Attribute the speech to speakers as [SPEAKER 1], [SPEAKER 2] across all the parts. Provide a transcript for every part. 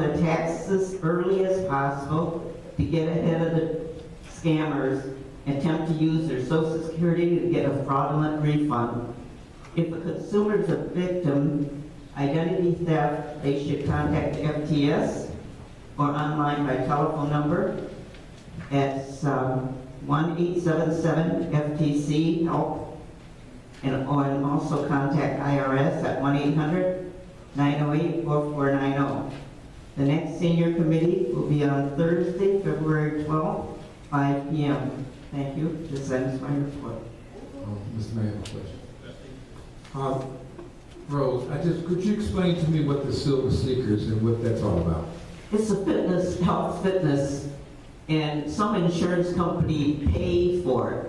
[SPEAKER 1] the taxes early as possible to get ahead of the scammers, attempt to use their social security to get a fraudulent refund. If a consumer is a victim identity theft, they should contact FTS or online by telephone number at one eight seven seven FTC help and or and also contact IRS at one 800 908 4490 the next senior committee will be on Thursday, February 12th, 5 p.m. Thank you. This ends my report.
[SPEAKER 2] Oh, Mr. Mayor, I have a question. Uh, Rose, I just, could you explain to me what the Silver Seekers and what that's all about?
[SPEAKER 1] It's a fitness, health fitness, and some insurance company pay for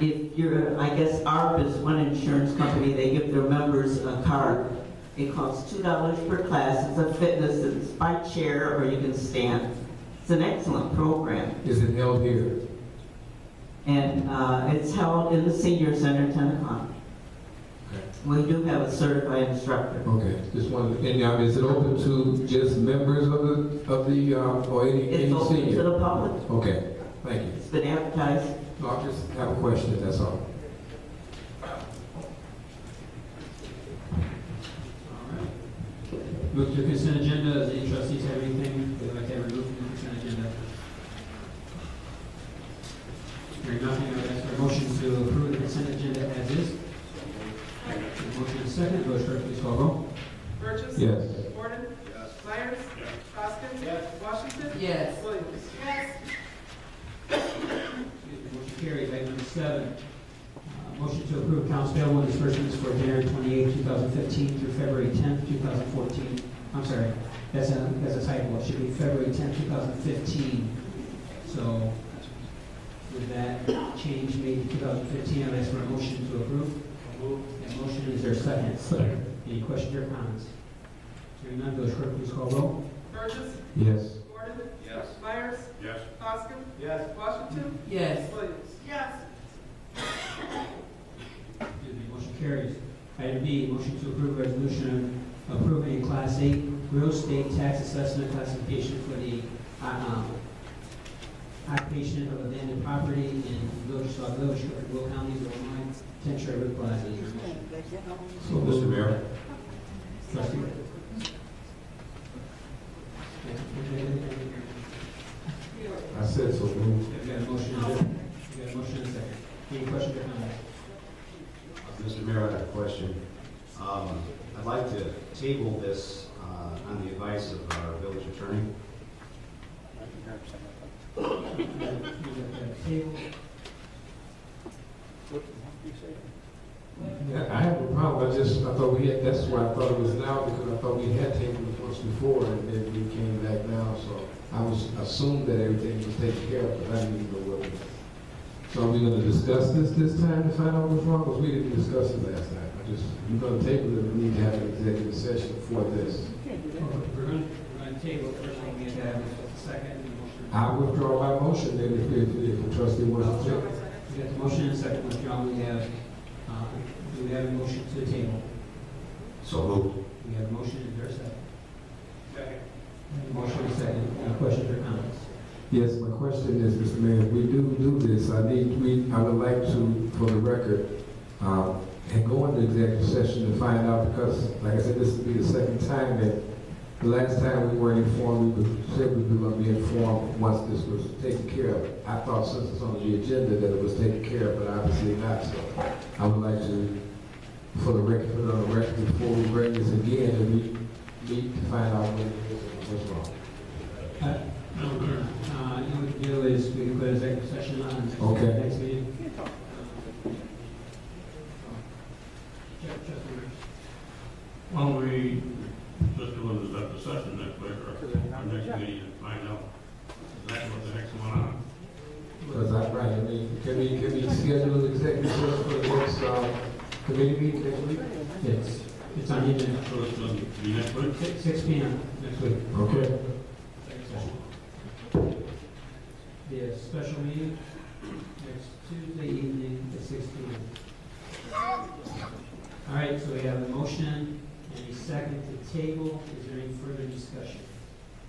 [SPEAKER 1] it. If you're, I guess ARP is one insurance company, they give their members a card. It costs two dollars per class, it's a fitness, it's by chair or you can stand. It's an excellent program.
[SPEAKER 2] Is it held here?
[SPEAKER 1] And uh, it's held in the senior center, 10 o'clock. We do have a certified instructor.
[SPEAKER 2] Okay, just wanted, and um, is it open to just members of the, of the, uh, or any,
[SPEAKER 1] It's
[SPEAKER 2] any
[SPEAKER 1] open to
[SPEAKER 2] senior?
[SPEAKER 1] the public.
[SPEAKER 2] Okay, thank you.
[SPEAKER 1] It's been advertised.
[SPEAKER 2] No, I just have a question, that's all.
[SPEAKER 3] Move to consent agenda. Does any trustees have anything they'd like to remove from the consent agenda? Hearing nothing, I would ask for a motion to approve the consent agenda as is. Motion is second. Village clerk, please call roll.
[SPEAKER 4] Burgess.
[SPEAKER 2] Yes.
[SPEAKER 4] Gordon. Myers. Poskett. Washington.
[SPEAKER 1] Yes.
[SPEAKER 4] Williams.
[SPEAKER 3] Motion carries. Item number seven. Uh, Motion to approve accounts payable and disbursements for January twenty-eighth, two thousand fifteen through February tenth, two thousand fourteen. I'm sorry, that's a, that's a typo. It should be February tenth, two thousand fifteen. So with that change made to two thousand fifteen, I'd ask for a motion to approve. That motion is there a second? Second. Any questions or comments? Hearing none, Village Clerk, please call roll.
[SPEAKER 4] Burgess.
[SPEAKER 2] Yes.
[SPEAKER 4] Gordon. Myers.
[SPEAKER 5] Yes.
[SPEAKER 4] Poskett.
[SPEAKER 5] Yes.
[SPEAKER 4] Washington.
[SPEAKER 1] Yes.
[SPEAKER 4] Williams. Yes.
[SPEAKER 3] Excuse me, Motion carries. Item B, motion to approve resolution approving a Class A real estate tax assessment classification for the uh, um, occupation of abandoned property in Village, Saw Village, Will County, Illinois, Ten Sherwood Plaza.
[SPEAKER 2] So, Mr. Mayor?
[SPEAKER 3] Trustee?
[SPEAKER 2] I said so moved.
[SPEAKER 3] We've got a motion, we've got a motion and a second. Any questions or comments?
[SPEAKER 6] Mr. Mayor, I have a question. Um, I'd like to table this uh, on the advice of our village attorney.
[SPEAKER 3] Table.
[SPEAKER 2] Yeah, I have a problem, I just, I thought we had, that's why I thought it was now, because I thought we had taken it once before, and then we came back now, so I was, assumed that everything was taken care of, but I didn't even know what it was. So are we gonna discuss this this time to find out what's wrong, because we didn't discuss it last time, I just, we're gonna table it, we need to have an executive session for this.
[SPEAKER 3] We're going, we're going to table it first, we need to have a second and a motion.
[SPEAKER 2] I withdraw my motion, then if, if, if the trustee wants to take.
[SPEAKER 3] We got the motion and second withdrawal, we have, uh, do we have a motion to the table?
[SPEAKER 6] So moved.
[SPEAKER 3] We have a motion, is there a second? Second. Motion and second, uh, questions or comments?
[SPEAKER 2] Yes, my question is, Mr. Mayor, if we do do this, I need, we, I would like to, for the record, um, and go into executive session to find out, because, like I said, this will be the second time that, the last time we weren't informed, we were- said we were gonna be informed once this was taken care of. I thought since it's on the agenda that it was taken care of, but obviously not, so I would like to, for the record, put it on the record before we bring this again, and we meet to find out what, what's wrong.
[SPEAKER 3] Uh, Uh, you know, what we do is, we can put executive session on next,
[SPEAKER 2] Okay.
[SPEAKER 3] next meeting. Uh, Ju- just a minute.
[SPEAKER 5] Well, we just go into the session next week, or our next meeting, and find out exactly what the heck's going on.
[SPEAKER 2] Because I, right, I mean, can we, can we schedule an executive session for the next, um, committee meeting next week?
[SPEAKER 3] It's, it's on the agenda,
[SPEAKER 5] So it's going to be next week?
[SPEAKER 3] six, six P M next week.
[SPEAKER 2] Okay.
[SPEAKER 3] The special meeting next Tuesday evening at six P M. All right, so we have a motion and a second to table. Is there any further discussion?